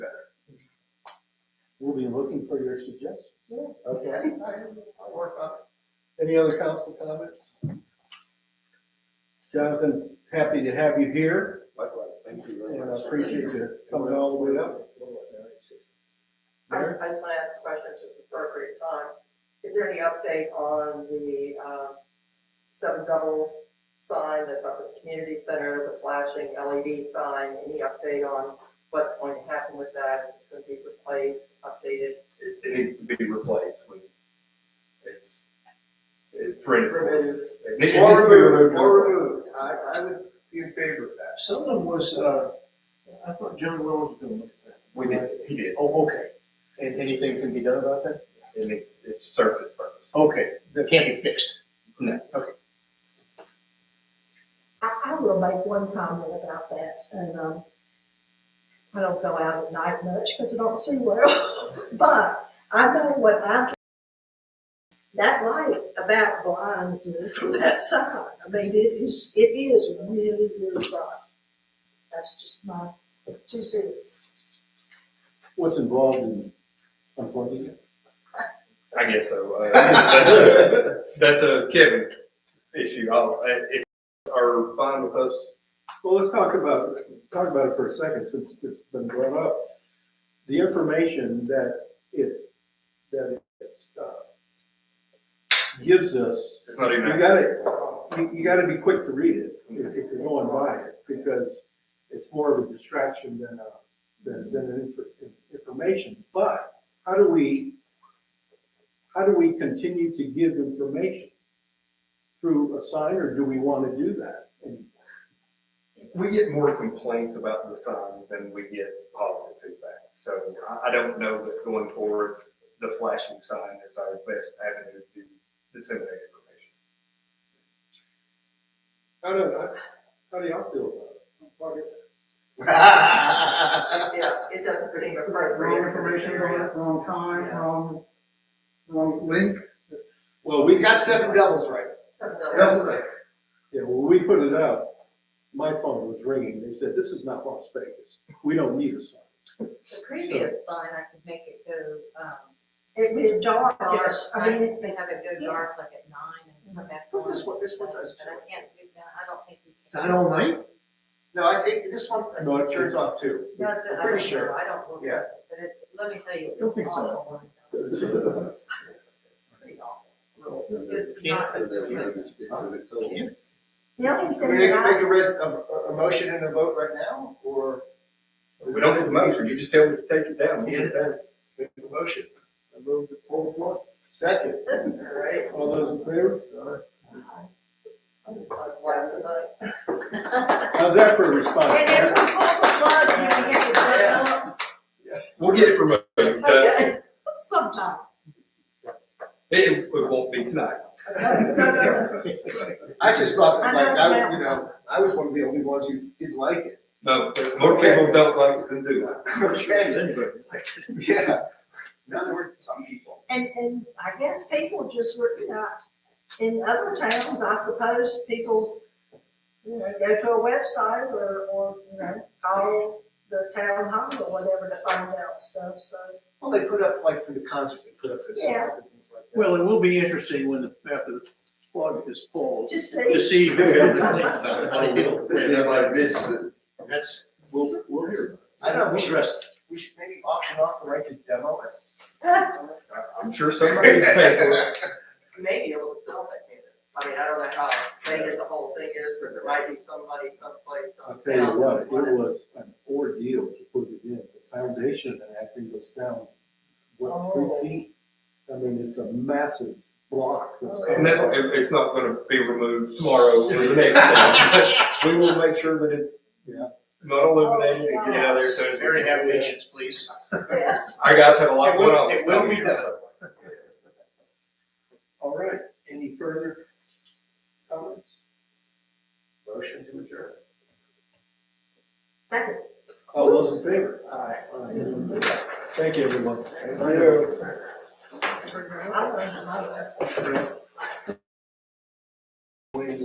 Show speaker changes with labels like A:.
A: be looking for your suggestions.
B: Okay, I, I'll work on it. Any other council comments?
A: Jonathan, happy to have you here,
B: Likewise, thank you very
A: and I
B: much.
A: appreciate you coming all the way up. Mayor?
C: I just want to ask a question at this appropriate time. Is there any update on the um, seven doubles sign that's up at the community center, the flashing LED sign? Any update on what's going to happen with that? It's going to be replaced, updated,
D: it, it needs to be replaced when it's, it's ready. It
C: removed?
D: needs to be
B: Or removed,
D: removed.
B: or removed. I, I would be in favor of that.
E: Some of them was, uh, I thought John Rowan was gonna look at that.
D: We did, he did.
E: Oh, okay. And anything can be done about that?
D: It needs, it serves its purpose.
E: Okay, that can't be fixed.
D: No.
E: Okay.
F: I, I will make one comment about that, and, um, I don't go out at night much because I don't see well, but I know what I, that light about blinds me from that side. I mean, it is, it is really, really bright. That's just my two cents.
A: What's involved in unplugging it?
D: I guess so. Uh, That's a- that's a Kevin issue. I'll, uh, if you are fine with us,
A: Well, let's talk about, talk about it for a second, since it's been brought up. The information that it, that it, uh, gives us
D: it's not even.
A: You gotta, you, you gotta be quick to read it, if, if you're going by it, because it's more of a distraction than a, than, than an infor- information. But how do we, how do we continue to give information? Through a sign, or do we wanna do that? And
D: We get more complaints about the sign than we get positive feedback. So I, I don't know that going forward, the flashing sign is our best avenue to disseminate information.
A: How do, how do y'all feel about it?
C: Yeah, it doesn't seem appropriate.
G: Wrong information, wrong, wrong time, wrong, wrong link.
A: Well,
B: We got seven devils right.
C: Seven doubles.
B: Double right.
A: Yeah, when we put it out, my phone was ringing, they said, this is not Las Vegas, we don't need a sign.
H: The previous sign, I could make it go, um,
F: It is dark,
H: dark,
F: I mean, it's
H: used to have it go dark like at nine and come back on.
B: Well, this one- this one does
H: But I can't do that, I don't think we can.
E: night?
B: No, I think this one,
A: No,
B: no,
A: it
B: it turns off too.
H: Does it?
B: I'm
H: I
B: pretty
H: don't
B: sure.
H: know. I don't look
B: Yeah.
H: at it, but it's, let me tell you.
E: Don't think so.
H: so. It's it's pretty awful. It's not, it's good.
F: the only
B: Can
F: thing
B: we make,
F: that I.
B: make a res, a, a- a motion and a vote right now, or?
D: We don't need a motion, you just tell them to take it down, get it down.
B: Make a motion. I move to pull the plug. Second.
C: All right.
A: All those in favor? How's that for a response?
F: And if we pull the plug, you can get the plug up.
D: We'll get it removed. Uh,
F: Okay, sometime.
D: It, it won't be tonight.
B: I just thought that,
F: I
B: like, I,
F: understand.
B: would- you know, I was one of the only ones who didn't like it.
D: No, more people don't like it than do
B: Okay,
D: that.
B: yeah. Now there were some people.
F: And, and I guess people just were, you know, in other towns, I suppose, people, you know, go to a website or, or, you know, call the town hall or whatever to find out stuff, so.
B: Well, they put up, like, for the concerts, they put up for the songs and things like that.
E: Well, it will be interesting when the, after the plug is pulled,
F: Just
E: to see
F: see,
E: who really
B: missed it.
E: That's, we'll, we'll hear.
B: I know, we should,
E: Interesting.
B: we should maybe auction off the right to demo it.
D: I'm sure somebody is paying for it.
C: may be able to sell that data. I mean, I don't know how big the whole thing is, but there might be somebody someplace
A: I'll
C: on
A: tell you
C: town.
A: what, it was an ordeal to put it in. The foundation of that thing goes down, what, three feet? I mean, it's a massive block.
D: And that's, it, it's not gonna be removed tomorrow or the next day. We will make sure that it's
A: Yeah.
D: not illuminated and get it out of there as soon as we
E: Very have
D: can.
E: patience, please.
F: yes.
D: Our guys have a lot going on.
E: It will- it will be done.
A: All right, any further comments?
B: Motion to adjourn.
F: Second.
A: All those in favor?
B: Aye.
A: Thank you, everyone.
B: Thank
F: I
B: you.
F: don't know, that's.
B: Thank you.